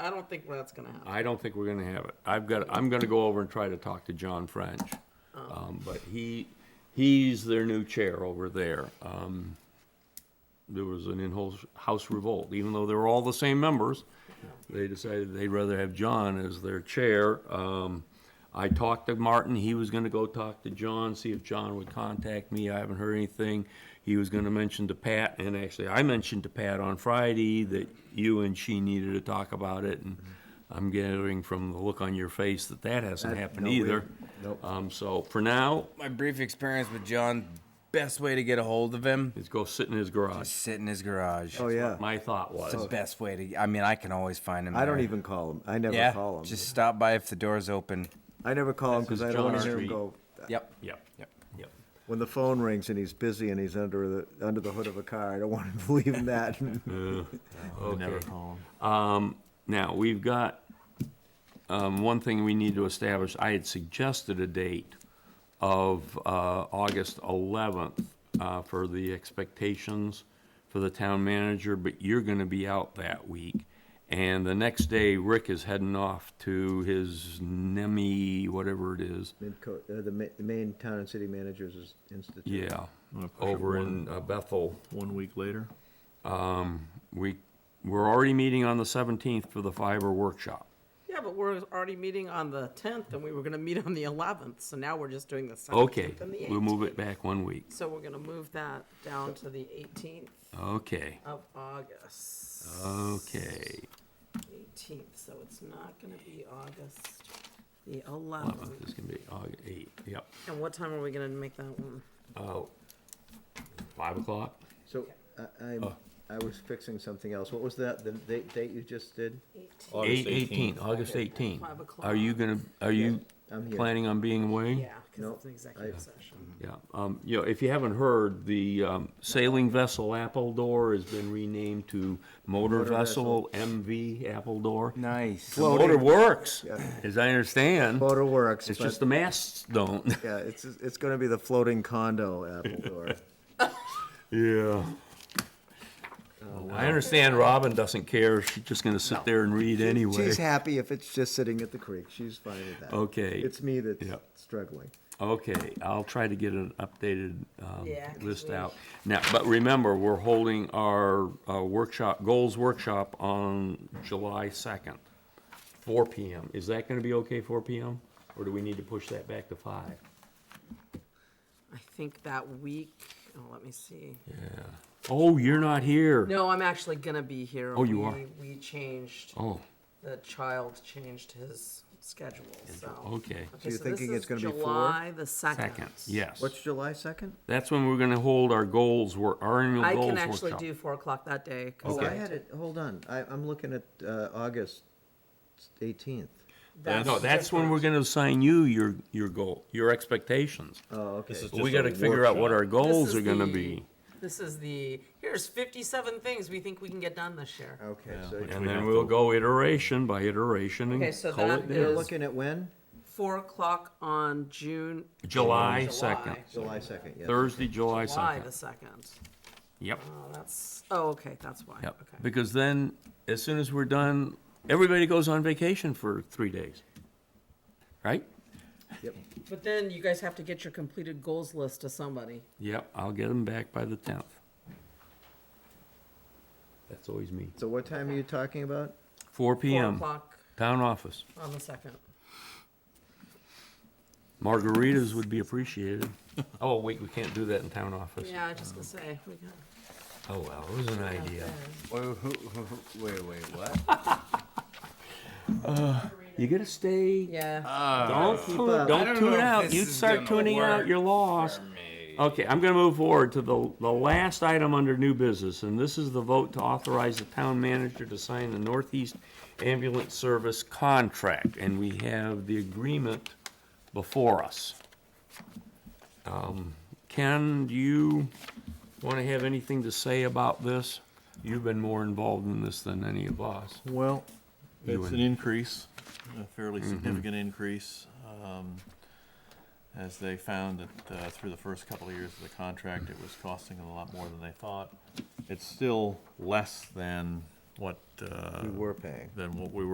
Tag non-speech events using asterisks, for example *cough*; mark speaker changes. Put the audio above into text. Speaker 1: I don't think that's gonna happen.
Speaker 2: I don't think we're gonna have it. I've got, I'm gonna go over and try to talk to John French. Um, but he, he's their new chair over there. Um, there was an in-house house revolt, even though they were all the same members. They decided they'd rather have John as their chair. Um, I talked to Martin, he was gonna go talk to John, see if John would contact me. I haven't heard anything. He was gonna mention to Pat, and actually, I mentioned to Pat on Friday that you and she needed to talk about it, and I'm gathering from the look on your face that that hasn't
Speaker 3: That-
Speaker 2: happened
Speaker 3: no, we-
Speaker 2: either.
Speaker 3: nope.
Speaker 2: Um, so for now,
Speaker 4: My brief experience with John, best way to get a hold of him,
Speaker 2: let's go sit in his garage.
Speaker 4: sit in his garage.
Speaker 3: Oh yeah.
Speaker 2: My thought was.
Speaker 4: It's the best way to. I mean, I can always find him.
Speaker 3: I don't
Speaker 4: there.
Speaker 3: even call him. I never
Speaker 4: Yeah,
Speaker 3: call him.
Speaker 4: just stop by if the door's open.
Speaker 3: I never call him
Speaker 2: This is
Speaker 3: because I don't want to
Speaker 2: John
Speaker 3: hear him
Speaker 2: Street.
Speaker 3: go.
Speaker 4: Yep.
Speaker 2: Yep, yep, yep.
Speaker 3: When the phone rings and he's busy and he's under the under the hood of a car, I don't *laughs* want him to leave him that. *laughs*
Speaker 2: Okay. Um, now, we've got, um, one thing we need to establish, I had suggested a date of, uh, August eleventh, uh, for the expectations for the town manager, but you're gonna be out that week. And the next day, Rick is heading off to his NEMI, whatever it is,
Speaker 3: Midco, uh, the, ma- the main town and city managers is institute.
Speaker 2: yeah,
Speaker 5: I'm gonna push it
Speaker 2: over
Speaker 5: one-
Speaker 2: in uh, Bethel.
Speaker 5: One week later.
Speaker 2: We, we're already meeting on the seventeenth for the fiber workshop.
Speaker 1: Yeah, but we're already meeting on the tenth, and we were gonna meet on the eleventh, so now we're just doing the
Speaker 2: Okay,
Speaker 1: seventeenth and the eighteenth.
Speaker 2: we'll move it back one week.
Speaker 1: So we're gonna move that down to the eighteenth
Speaker 2: Okay,
Speaker 1: of August.
Speaker 2: okay.
Speaker 1: Eighteenth, so it's not gonna be August the
Speaker 2: Eleventh
Speaker 1: eleventh.
Speaker 2: is gonna be August eight, yep.
Speaker 1: And what time are we gonna make that one?
Speaker 2: Oh, five o'clock?
Speaker 3: So I, I'm, I was fixing something else. What was that? The date, date you just did?
Speaker 1: Eighteenth.
Speaker 2: Eight, eighteen, August
Speaker 1: Okay,
Speaker 2: eighteen.
Speaker 1: five o'clock.
Speaker 2: Are you gonna, are you
Speaker 3: I'm here.
Speaker 2: planning on being away?
Speaker 1: Yeah, because
Speaker 3: No,
Speaker 1: it's an executive
Speaker 3: I-
Speaker 1: session.
Speaker 2: Yeah, um, you know, if you haven't heard, the, um, sailing vessel Appledore has been renamed to motor vessel MV Appledore.
Speaker 4: Nice.
Speaker 2: The motor works, as I understand.
Speaker 3: Photo works.
Speaker 2: It's
Speaker 3: but-
Speaker 2: just the masts don't. *laughs*
Speaker 3: yeah, it's it's going to be the floating condo *laughs* Appledore.
Speaker 2: Yeah. I understand Robin doesn't care. She's just gonna sit there and read anyway.
Speaker 3: She's happy if it's just sitting at the creek. She's fine with that.
Speaker 2: Okay.
Speaker 3: It's me that's
Speaker 2: Yeah.
Speaker 3: struggling.
Speaker 2: Okay, I'll try to get an updated, um,
Speaker 1: Yeah, 'cause
Speaker 2: list
Speaker 1: we-
Speaker 2: out. Now, but remember, we're holding our, uh, workshop, goals workshop on July second, four P M. Is that gonna be okay, four P M? Or do we need to push that back to five?
Speaker 1: I think that week, oh, let me see.
Speaker 2: Oh, you're not here.
Speaker 1: No, I'm actually gonna be here.
Speaker 2: Oh, you
Speaker 1: We-
Speaker 2: are?
Speaker 1: We changed,
Speaker 2: Oh,
Speaker 1: the child changed his schedule, so.
Speaker 2: okay.
Speaker 1: Okay, so this
Speaker 3: you're thinking it's
Speaker 1: is
Speaker 3: gonna be four?
Speaker 1: July the second.
Speaker 2: Second, yes.
Speaker 3: What's July second?
Speaker 2: That's when we're gonna hold our goals, wor- our annual
Speaker 1: I
Speaker 2: goals
Speaker 1: can
Speaker 2: workshop.
Speaker 1: actually do four o'clock that day. 'cause
Speaker 3: Oh, I
Speaker 1: I-
Speaker 3: had it. Hold on. I, I'm looking at uh, August eighteenth.
Speaker 2: No, that's when we're gonna assign you your, your goal, your expectations.
Speaker 3: Oh, okay.
Speaker 2: We gotta figure out what our
Speaker 1: This
Speaker 2: goals
Speaker 1: is
Speaker 2: are gonna
Speaker 1: the-
Speaker 2: be.
Speaker 1: This is the, here's fifty-seven things we think we can get done this year.
Speaker 3: Okay. So
Speaker 2: And then we'll go iteration by iteration
Speaker 1: Okay,
Speaker 2: and
Speaker 1: so
Speaker 2: call
Speaker 1: that
Speaker 2: it
Speaker 3: you're
Speaker 2: there.
Speaker 1: is-
Speaker 3: looking at when?
Speaker 1: Four o'clock on June.
Speaker 2: July second,
Speaker 3: July second. Yes.
Speaker 2: Thursday, July
Speaker 1: July the
Speaker 2: second.
Speaker 1: second.
Speaker 2: Yep,
Speaker 1: Oh, that's, oh, okay, that's why.
Speaker 2: yep.
Speaker 1: Okay.
Speaker 2: Because then, as soon as we're done, everybody goes on vacation for three days. Right?
Speaker 3: Yep.
Speaker 1: But then you guys have to get your completed goals list to somebody.
Speaker 2: Yep, I'll get them back by the tenth. That's always me.
Speaker 3: So what time are you talking about?
Speaker 2: Four
Speaker 1: Four
Speaker 2: PM,
Speaker 1: o'clock
Speaker 2: town office.
Speaker 1: on the second.
Speaker 2: Margaritas would be appreciated. *laughs* Oh, wait, we can't do that in town office.
Speaker 1: Yeah, I was just gonna say, we got.
Speaker 2: Oh, well, it was an idea.
Speaker 4: Wait, wait, wait, what?
Speaker 2: You gotta stay,
Speaker 1: Yeah,
Speaker 2: don't, tune- don't
Speaker 4: don't know
Speaker 2: tune
Speaker 4: if
Speaker 2: out,
Speaker 4: this
Speaker 2: you
Speaker 4: is
Speaker 2: start
Speaker 4: gonna
Speaker 2: tuning out,
Speaker 4: work
Speaker 2: you're lost. Okay, I'm gonna move forward to the, the last item under new business, and this is the vote to authorize the town manager to sign the Northeast Ambulance Service contract, and we have the agreement before us. Um, Ken, do you wanna have anything to say about this? You've been more involved in this than any of us.
Speaker 5: Well,
Speaker 2: You
Speaker 5: it's
Speaker 2: and-
Speaker 5: an increase, a fairly
Speaker 2: Mm-hmm.
Speaker 5: significant increase. um, As they found that uh, through the first couple of years of the contract, it was costing them a lot more than they thought. It's still less than what, uh,
Speaker 3: We were paying.
Speaker 5: than what we were